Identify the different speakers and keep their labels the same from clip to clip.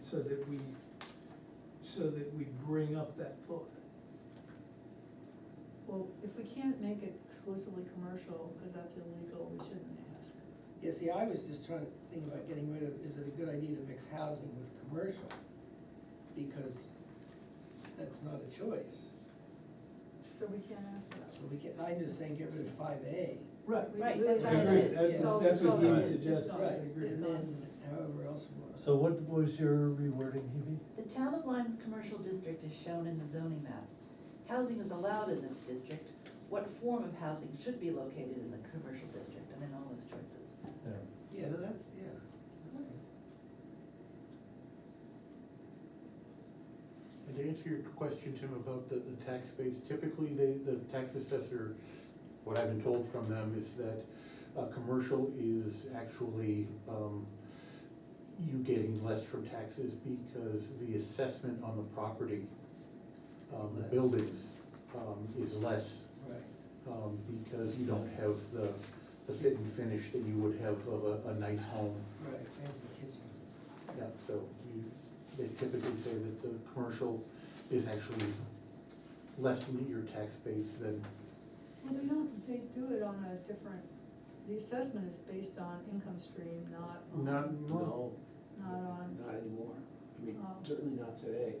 Speaker 1: so that we, so that we bring up that thought.
Speaker 2: Well, if we can't make it exclusively commercial, because that's illegal, we shouldn't ask.
Speaker 3: Yeah, see, I was just trying to think about getting rid of, is it a good idea to mix housing with commercial? Because that's not a choice.
Speaker 2: So we can't ask
Speaker 3: So
Speaker 2: that.
Speaker 3: we get, I'm just saying get rid of five A.
Speaker 1: Right.
Speaker 2: We-
Speaker 4: Right,
Speaker 2: we-
Speaker 4: that's
Speaker 1: I
Speaker 4: what I
Speaker 1: agree,
Speaker 4: did.
Speaker 1: that's,
Speaker 3: Yeah.
Speaker 2: It's all-
Speaker 1: that's
Speaker 2: it's
Speaker 1: what
Speaker 2: all
Speaker 1: Dee
Speaker 2: gone.
Speaker 3: It's
Speaker 1: suggested,
Speaker 2: gone.
Speaker 1: I agree.
Speaker 2: It's
Speaker 3: And
Speaker 2: gone.
Speaker 3: then however else we want.
Speaker 5: So what was your rewording, Hebe?
Speaker 4: The town of Lyme's commercial district is shown in the zoning map. Housing is allowed in this district. What form of housing should be located in the commercial district? And then all those choices.
Speaker 5: There.
Speaker 3: Yeah, that's, yeah. that's good.
Speaker 6: And to answer your question, Tim, about the, the tax base, typically they, the tax assessor, what I've been told from them is that, uh, commercial is actually, um, you getting less from taxes because the assessment on the property, um, the
Speaker 3: Less.
Speaker 6: buildings, um, is less,
Speaker 3: Right.
Speaker 6: um, because you don't have the, the fit and finish that you would have of a, a nice home.
Speaker 3: Right, fancy kitchen.
Speaker 6: Yeah, so you, they typically say that the commercial is actually less than your tax base than,
Speaker 2: Well, they don't, they do it on a different, the assessment is based on income stream, not on,
Speaker 6: not,
Speaker 2: not
Speaker 6: no.
Speaker 2: on,
Speaker 7: Not anymore. I mean,
Speaker 2: Oh.
Speaker 7: certainly not today.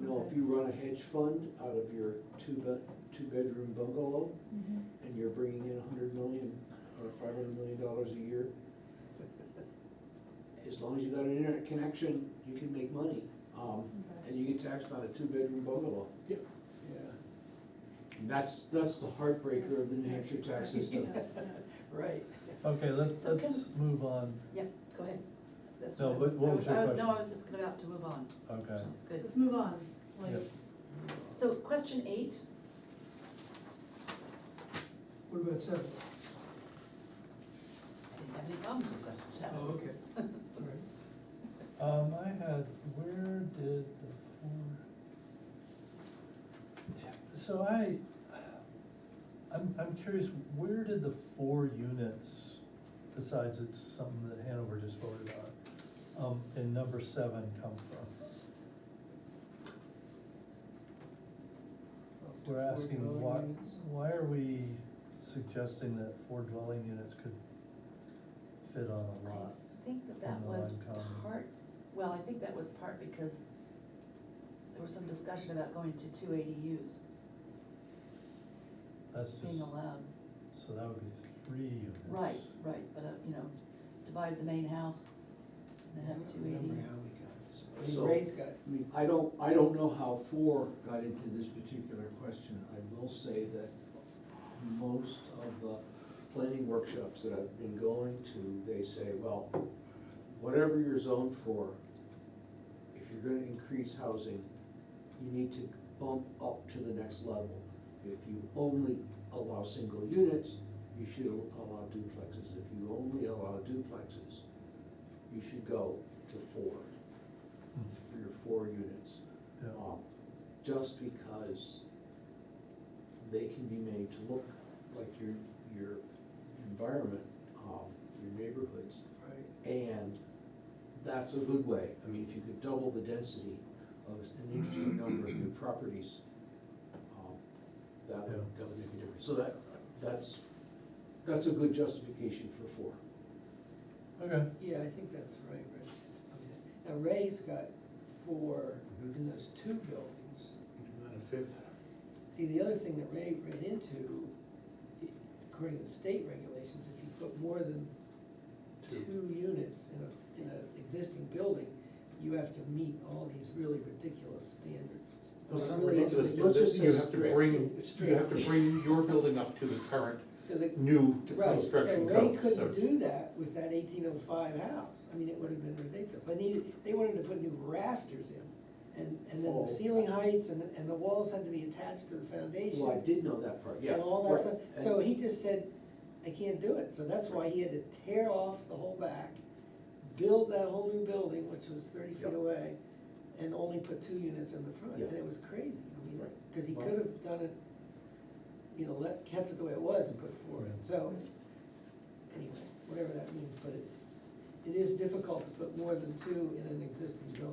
Speaker 7: You know,
Speaker 2: Okay.
Speaker 7: if you run a hedge fund out of your two bed, two bedroom bungalow
Speaker 4: Mm-hmm.
Speaker 7: and you're bringing in a hundred million or five hundred million dollars a year, as long as you got an internet connection, you can make money. Um,
Speaker 2: Okay.
Speaker 7: and you get taxed on a two bedroom bungalow.
Speaker 6: Yep.
Speaker 7: Yeah. And that's, that's the heartbreaker of the New Hampshire tax system.
Speaker 2: Yeah, yeah.
Speaker 3: Right.
Speaker 5: Okay, let's,
Speaker 4: So can-
Speaker 5: let's move on,
Speaker 4: Yeah, go ahead. That's
Speaker 5: No,
Speaker 4: what I-
Speaker 5: but what was your
Speaker 4: I No,
Speaker 5: question?
Speaker 4: I was just about to move on.
Speaker 5: okay.
Speaker 4: That's good.
Speaker 2: Let's move on, like,
Speaker 5: Yep.
Speaker 4: So question eight,
Speaker 1: What about seven?
Speaker 4: I didn't have any problems with question seven.
Speaker 1: Oh, okay, all right.
Speaker 5: Um, I had, where did the four? Yeah, So I, I'm, I'm curious, where did the four units, besides it's something that Hanover just voted on, um, in number seven come from?
Speaker 3: Up to
Speaker 5: We're
Speaker 3: four
Speaker 5: asking
Speaker 3: dwelling
Speaker 5: why,
Speaker 3: units.
Speaker 5: why are we suggesting that four dwelling units could fit on a lot?
Speaker 4: I think that that
Speaker 5: in the
Speaker 4: was
Speaker 5: Lime Common?
Speaker 4: part, well, I think that was part because there was some discussion about going to two ADUs
Speaker 5: That's
Speaker 4: being
Speaker 5: just,
Speaker 4: allowed.
Speaker 5: so that would be three units.
Speaker 4: Right, right, but, uh, you know, divide the main house and then have two
Speaker 3: Remember
Speaker 4: ADUs.
Speaker 3: how we got it. So
Speaker 7: So-
Speaker 3: Ray's got,
Speaker 7: I mean, I don't, I don't know how four got into this particular question. I will say that most of the planning workshops that I've been going to, they say, well, whatever you're zoned for, if you're gonna increase housing, you need to bump up to the next level. If you only allow single units, you should allow duplexes. If you only allow duplexes, you should go to four
Speaker 5: Hmm,
Speaker 7: three or four units.
Speaker 5: Yeah.
Speaker 7: um, Just because they can be made to look like your, your environment, um, your neighborhoods.
Speaker 3: right.
Speaker 7: And that's a good way. I mean, if you could double the density of an interesting number of new properties, um, that would,
Speaker 5: Yeah.
Speaker 7: that would make a difference. So that, that's, that's a good justification for four.
Speaker 5: Okay.
Speaker 3: Yeah, I think that's right, Ray. Okay. Now Ray's got four
Speaker 6: Mhm.
Speaker 3: in those two buildings.
Speaker 6: And then a fifth.
Speaker 3: See, the other thing that Ray ran into, according to the state regulations, if you put more than
Speaker 6: Two.
Speaker 3: two units in a, in an existing building, you have to meet all these really ridiculous standards.
Speaker 6: Those are
Speaker 3: Really
Speaker 6: ridiculous.
Speaker 3: ugly.
Speaker 7: Let's just
Speaker 6: You
Speaker 7: say
Speaker 6: have to
Speaker 7: strict.
Speaker 6: bring, you have to
Speaker 3: Strict.
Speaker 6: bring your building up to the current
Speaker 3: To the-
Speaker 6: new
Speaker 3: Right,
Speaker 6: construction
Speaker 3: So Ray
Speaker 6: code.
Speaker 3: couldn't do that with that eighteen oh five house, I mean, it would have been ridiculous, they needed, they wanted to put new rafters in, and, and then
Speaker 7: Oh.
Speaker 3: the ceiling heights, and, and the walls had to be attached to the foundation.
Speaker 7: Well, I did know that part, yeah.
Speaker 3: And all that
Speaker 7: right.
Speaker 3: stuff,
Speaker 7: And-
Speaker 3: so he just said, I can't do it, so that's why he had to tear off the whole back, build that whole new building, which was thirty feet
Speaker 7: Yep.
Speaker 3: away, and only put two units in the front,
Speaker 7: Yeah.
Speaker 3: and it was crazy, I mean,
Speaker 7: Right.
Speaker 3: cause he
Speaker 7: Well-
Speaker 3: could have done it, you know, let, kept it the way it was and put four in, so, anyway, whatever that means, but it, it is difficult to put more than two in an existing building.